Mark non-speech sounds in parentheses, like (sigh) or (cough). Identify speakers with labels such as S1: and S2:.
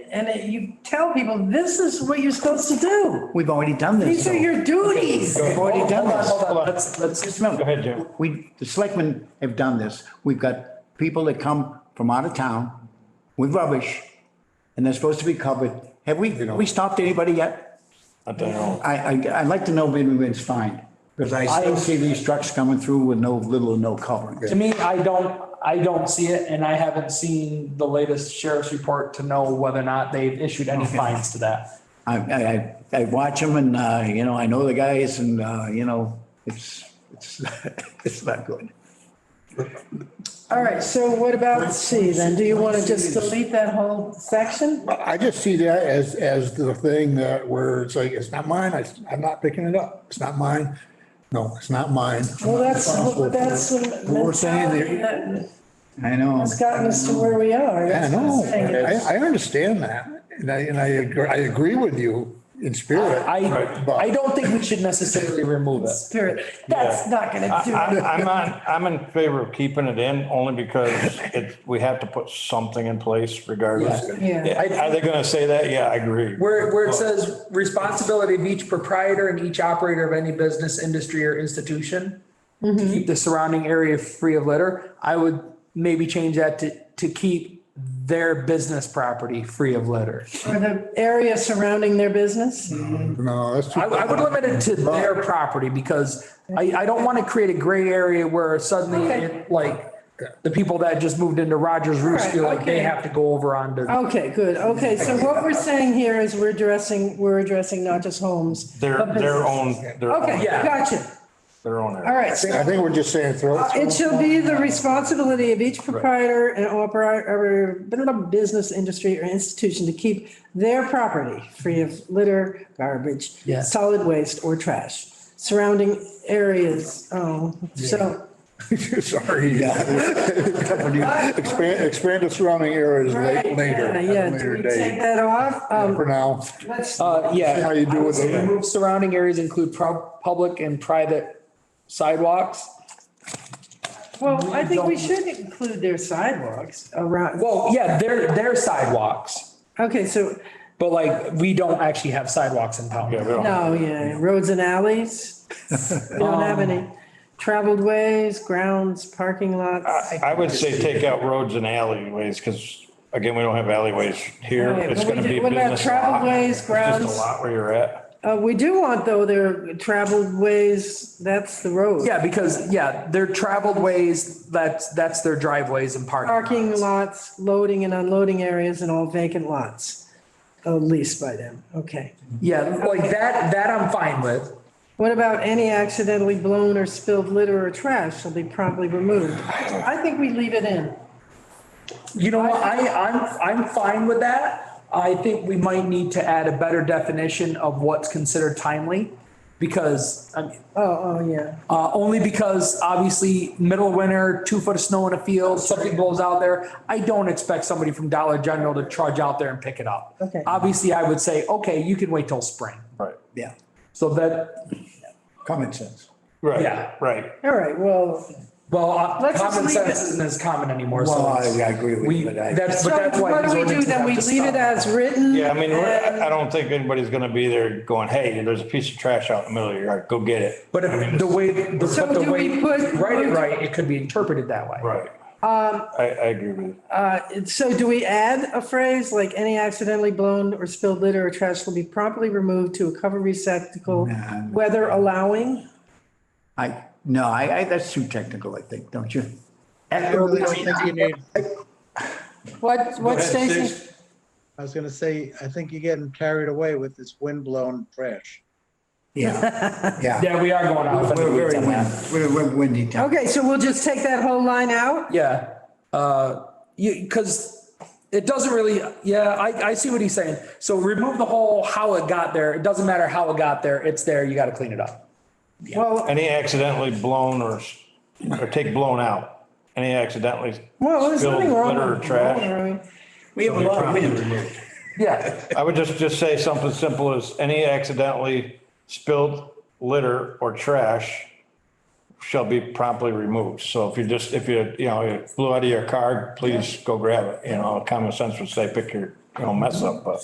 S1: and it- you tell people, this is what you're supposed to do.
S2: We've already done this.
S1: These are
S2: though.
S1: your duties.
S2: We've already done
S3: Hold on,
S2: this.
S3: hold on.
S2: Let's, let's just remember.
S3: Go ahead, Jim.
S2: We, the selectmen have done this. We've got people that come from out of town with rubbish and they're supposed to be covered. Have we, we stopped anybody yet?
S3: I don't know.
S2: I, I, I'd like to know when we've been fined. Because I still see these trucks coming through with no, little or no covering.
S4: To me, I don't, I don't see it and I haven't seen the latest sheriff's report to know whether or not they've issued any fines to that.
S2: I, I, I- I watch them and, uh, you know, I know the guys and, uh, you know, it's, it's, (laughs) it's not good.
S1: All right, so what about C then? Do you want to just delete that whole section?
S5: I just see that as, as the thing that where it's like, it's not mine, I, I'm not picking it up, it's not mine. No, it's not mine.
S1: Well, that's, that's the
S5: We're saying
S1: mentality
S5: that,
S1: that
S2: I know.
S1: has gotten us to where we are.
S5: I
S1: That's what I'm
S5: know,
S1: saying.
S5: I, I understand that, and I, and I, agree- I agree with you in spirit.
S4: I,
S5: but-
S4: I don't think we should necessarily remove it.
S1: Spirit, that's not going to
S3: I,
S1: (laughs) do
S3: I'm-
S1: it.
S3: I'm on, I'm in favor of keeping it in only because it, we have to put something in place regardless.
S1: Yeah. Yeah.
S3: Are they gonna say that? Yeah, I agree.
S6: Where, where it says responsibility of each proprietor and each operator of any business, industry or institution.
S4: to keep the surrounding area free of litter, I would maybe change that to, to keep their business property free of litter.
S1: Or the area surrounding their business?
S5: No, that's. too-
S4: I, I would limit it to their property because I, I don't want to create a gray area where suddenly
S1: Okay.
S4: it, like the people that just moved into Rogers Roost
S1: Alright,
S4: feel like they
S1: okay.
S4: have to go over onto.
S1: Okay, good. Okay, so what we're saying here is we're addressing, we're addressing not just homes.
S3: Their,
S1: but
S3: their own,
S1: businesses.
S3: their
S1: Okay,
S3: own,
S4: Yeah.
S1: gotcha.
S3: their own. area.
S1: All right. so
S5: I think we're just saying throw.
S1: It shall be the responsibility of each proprietor and operator, blah, blah, blah, business, industry, or institution to keep their property free of litter, garbage,
S4: Yeah.
S1: solid waste, or trash. Surrounding areas, oh, so,
S5: (laughs) Sorry. Expand, expand the surrounding areas
S1: Right,
S5: la- later,
S1: yeah,
S5: at
S1: yeah,
S5: a
S1: do
S5: later
S1: we take
S5: date,
S1: that off? Um,
S5: for now.
S1: let's-
S4: Uh, yeah.
S5: See how you do
S4: I would
S5: with
S4: say
S5: it.
S4: remove Surrounding areas include prob, public and private sidewalks.
S1: Well, I think we should include their sidewalks around,
S4: Well, yeah, their, their sidewalks,
S1: okay, so,
S4: but like, we don't actually have sidewalks in town.
S3: Yeah, we don't-
S1: no, yeah, roads and alleys. We don't have any. Traveled ways, grounds, parking lots.
S3: I would say take out roads and alleyways, because again, we don't have alleyways here.
S1: Right,
S3: It's
S1: but we
S3: gonna
S1: do-
S3: be a
S1: what about
S3: business lot.
S1: traveled ways,
S3: It's
S1: grounds?
S3: Just a lot where you're at.
S1: Uh, we do want though their traveled ways, that's the road.
S4: Yeah, because, yeah, their traveled ways, that's, that's their driveways and parking.
S1: Parking
S4: lots.
S1: lots, loading and unloading areas and all vacant lots uh, leased by them, okay.
S4: Yeah,
S6: Like that, that I'm fine with.
S1: What about any accidentally blown or spilled litter or trash shall be promptly removed? I think we leave it in.
S4: you know, what, I, I'm, I'm fine with that. I think we might need to add a better definition of what's considered timely. Because, I mean,
S1: Oh, oh, yeah.
S4: uh, only because obviously middle of winter, two foot of snow in a field, something blows out there. I don't expect somebody from Dollar General to trudge out there and pick it up.
S1: Okay.
S4: Obviously, I would say, okay, you can wait till spring.
S3: Right.
S2: Yeah,
S4: So that,
S2: common sense.
S3: Right,
S4: Yeah.
S3: right.
S1: All right, well,
S4: well, uh,
S1: Let's just
S4: common
S1: leave it.
S4: sense isn't as common anymore,
S2: Well,
S4: so.
S2: I I agree with
S4: We,
S2: you, but I.
S4: that's,
S1: so
S4: but that's why.
S1: what do we do
S4: these
S1: then? We
S4: ordinances have
S1: leave
S4: to
S1: it
S4: stop.
S1: as written?
S3: Yeah, I mean, we're- I I
S1: and-
S3: don't think anybody's gonna be there going, hey, there's a piece of trash out in the middle of your yard, go get it.
S4: But if the way, the-
S1: So
S4: but the
S1: do
S4: way,
S1: we put-
S4: write it right, it could be interpreted that way.
S3: Right. Um. I, I agree with you.
S1: Uh, So do we add a phrase like any accidentally blown or spilled litter or trash will be promptly removed to a covered receptacle,
S2: Nah.
S1: weather allowing?
S2: I, no, I, I, that's too technical, I think, don't you?
S7: I really don't think you need,
S1: What, what Stacy?
S7: I was gonna say, I think you're getting carried away with this windblown trash.
S2: Yeah, yeah.
S4: Yeah, we are going off. on the
S2: We're
S4: weeds
S2: very
S4: on that.
S2: windy, we're, we're windy town.
S1: Okay, so we'll just take that whole line out?
S4: Yeah, uh, you, because it doesn't really, yeah, I, I see what he's saying. So remove the whole how it got there. It doesn't matter how it got there. It's there. You got to clean it up.
S1: Well,
S3: Any accidentally blown or, s- or take blown out, any accidentally
S1: well, there's
S3: spilled
S1: nothing wrong.
S3: litter or
S1: with-
S3: trash.
S2: We have a lot of wind.
S4: Yeah,
S3: I would just, just say something simple as any accidentally spilled litter or trash shall be promptly removed. So if you just, if you, you know, you blew out of your car, please go grab it, you know, common sense would say, pick your you know, mess up, but.